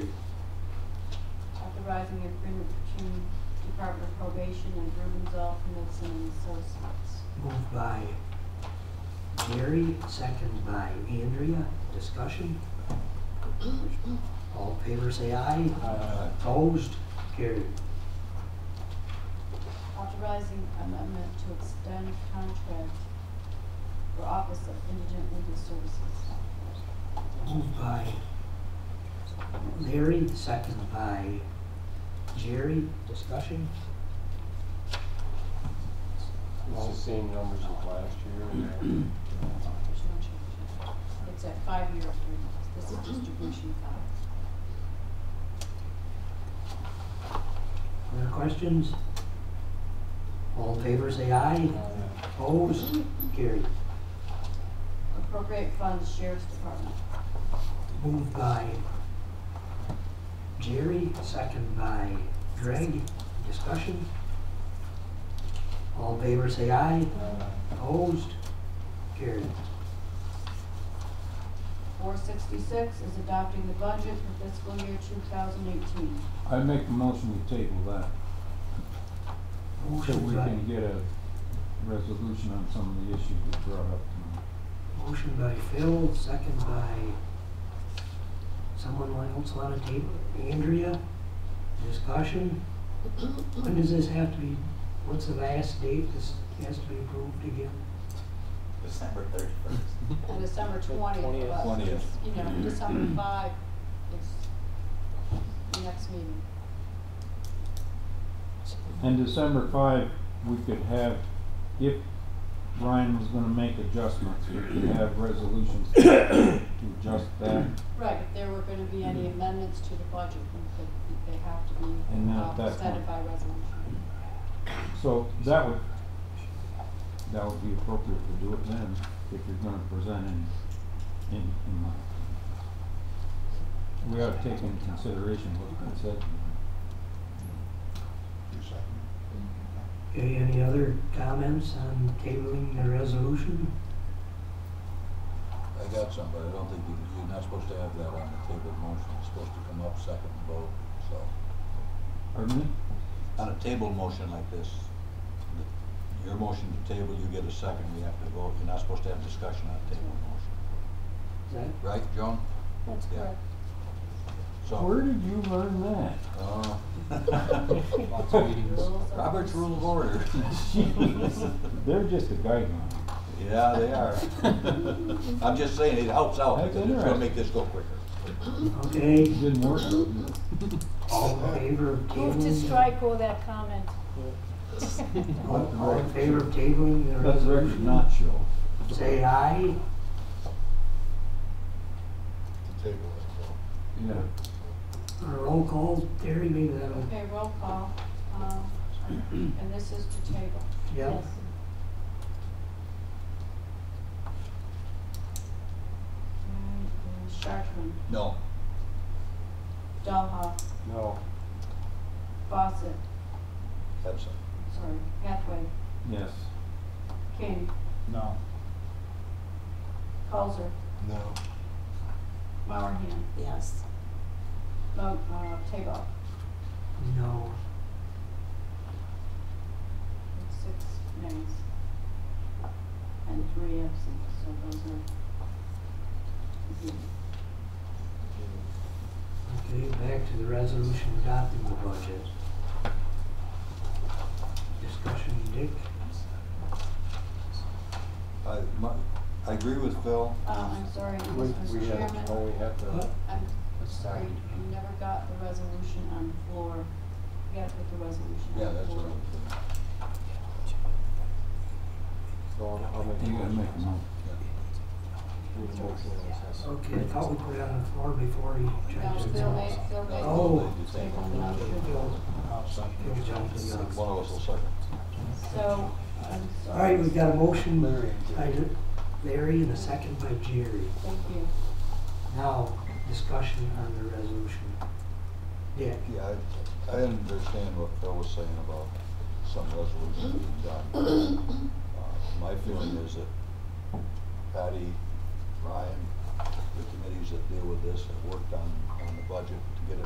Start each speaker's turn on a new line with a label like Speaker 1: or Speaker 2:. Speaker 1: revising the agreement between Department of Probation and Rubenzoll Knudsen and Associates.
Speaker 2: Moved by Jerry, second by Andrea. Discussion? All in favor, say aye.
Speaker 3: Aye.
Speaker 2: Opposed? Carried.
Speaker 1: Authorizing amendment to extend contract for Office of Indigent Legal Services.
Speaker 2: Moved by Larry, second by Jerry. Discussion?
Speaker 3: It's the same numbers as last year. right?
Speaker 1: There's no change. It's at five-year agreement. This is distribution five.
Speaker 2: Other questions? All in favor, say aye.
Speaker 3: uh,
Speaker 2: Opposed? Carried.
Speaker 1: Appropriate funds Sheriff's Department.
Speaker 2: Moved by Jerry, second by Greg. Discussion? All in favor, say aye.
Speaker 3: uh,
Speaker 2: Opposed? Carried.
Speaker 1: Four sixty-six is adopting the budget for fiscal year two thousand eighteen.
Speaker 4: I make a motion to table that, so
Speaker 2: Motion
Speaker 4: we
Speaker 2: by,
Speaker 4: can get a resolution on some of the issues that brought up tonight.
Speaker 2: motion by Phil, second by someone else on the table, Andrea. Discussion? When does this have to be, what's the last date this has to be approved again?
Speaker 5: December thirty-first.
Speaker 1: On December twentieth, but,
Speaker 4: Twentieth. Mm-hmm.
Speaker 1: you know, December five is the next meeting.
Speaker 4: And December five, we could have, if Ryan was gonna make adjustments, we could have resolutions to adjust that,
Speaker 1: Right, if there were gonna be any amendments to the budget, then they- they have to be
Speaker 4: Mm-hmm. And then at
Speaker 1: uh,
Speaker 4: that
Speaker 1: presented
Speaker 4: point-
Speaker 1: by resolution.
Speaker 4: so that would, that would be appropriate to do it then, if you're gonna present in, in, in my. We ought to take into consideration what's been said tonight.
Speaker 2: Okay, any other comments on tabling the resolution?
Speaker 6: I got some, but I don't think you, you're not supposed to have that on the table motion, it's supposed to come up second and vote, so.
Speaker 4: Pardon me?
Speaker 6: On a table motion like this, the- your motion to table, you get a second, we have to vote, you're not supposed to have discussion on a table motion,
Speaker 2: Is that
Speaker 6: right, Joan?
Speaker 1: That's
Speaker 6: Yeah.
Speaker 1: correct.
Speaker 6: So,
Speaker 4: Where did you learn that?
Speaker 6: uh,
Speaker 3: Lots of meetings.
Speaker 1: Rules of-
Speaker 6: Robert's Rule of Order.
Speaker 4: Jeez, They're just a guideline.
Speaker 6: Yeah, they are. I'm just saying, it helps out,
Speaker 4: That's
Speaker 6: because it's gonna
Speaker 4: interesting.
Speaker 6: make this go quicker.
Speaker 2: Okay,
Speaker 4: Didn't work though, did it?
Speaker 2: all in favor of tabling?
Speaker 7: Move to
Speaker 4: Mm-hmm.
Speaker 7: strike all that comment.
Speaker 2: All all in favor of tabling the
Speaker 4: That's the record
Speaker 2: resolution?
Speaker 4: not show.
Speaker 2: Say aye.
Speaker 6: table it,
Speaker 4: Yeah.
Speaker 2: Or Roll call, Terry, maybe that'll,
Speaker 1: Okay, roll call, um, and this is to table.
Speaker 2: yeah.
Speaker 1: Mm, Chartran,
Speaker 6: No,
Speaker 1: Dalhoff,
Speaker 3: No,
Speaker 1: Fawcett,
Speaker 6: absent.
Speaker 1: sorry, Hathaway,
Speaker 4: Yes.
Speaker 1: King,
Speaker 5: No.
Speaker 1: Colzer,
Speaker 6: No.
Speaker 1: Mowerhand,
Speaker 7: Yes.
Speaker 1: Mo, uh, Table.
Speaker 2: No.
Speaker 1: Six names. And three absent, so those are.
Speaker 2: Okay, back to the resolution adopting the budget. Discussion, Dick?
Speaker 6: I, my, I agree with Phil,
Speaker 1: Um, I'm sorry,
Speaker 3: we,
Speaker 1: Mr.
Speaker 3: we have, oh,
Speaker 1: Chairman,
Speaker 3: we have to.
Speaker 1: I'm sorry, you never got the resolution on the floor. You gotta put the resolution on the
Speaker 6: yeah,
Speaker 1: floor.
Speaker 6: that's what I'm.
Speaker 3: So I'll, I'll make a
Speaker 4: You gotta make a
Speaker 3: motion.
Speaker 4: note.
Speaker 3: Need a motion in a second.
Speaker 2: Okay, I thought we put it on the floor before he
Speaker 1: No,
Speaker 2: checked it
Speaker 1: Phil
Speaker 2: out.
Speaker 1: made, Phil made.
Speaker 2: Oh.
Speaker 6: They did table.
Speaker 1: No.
Speaker 2: Phil- Phil jumped the gun.
Speaker 6: One of us will second.
Speaker 1: So, I'm
Speaker 2: All
Speaker 1: sorry.
Speaker 2: right, we've got a motion
Speaker 3: Larry and
Speaker 2: by
Speaker 3: Jerry.
Speaker 2: Larry and a second by Jerry.
Speaker 1: Thank you.
Speaker 2: Now, discussion on the resolution. Dick?
Speaker 6: Yeah, I, I understand what Phil was saying about some resolution being done. Uh, My feeling is that Patty, Ryan, the committees that deal with this have worked on, on the budget to get it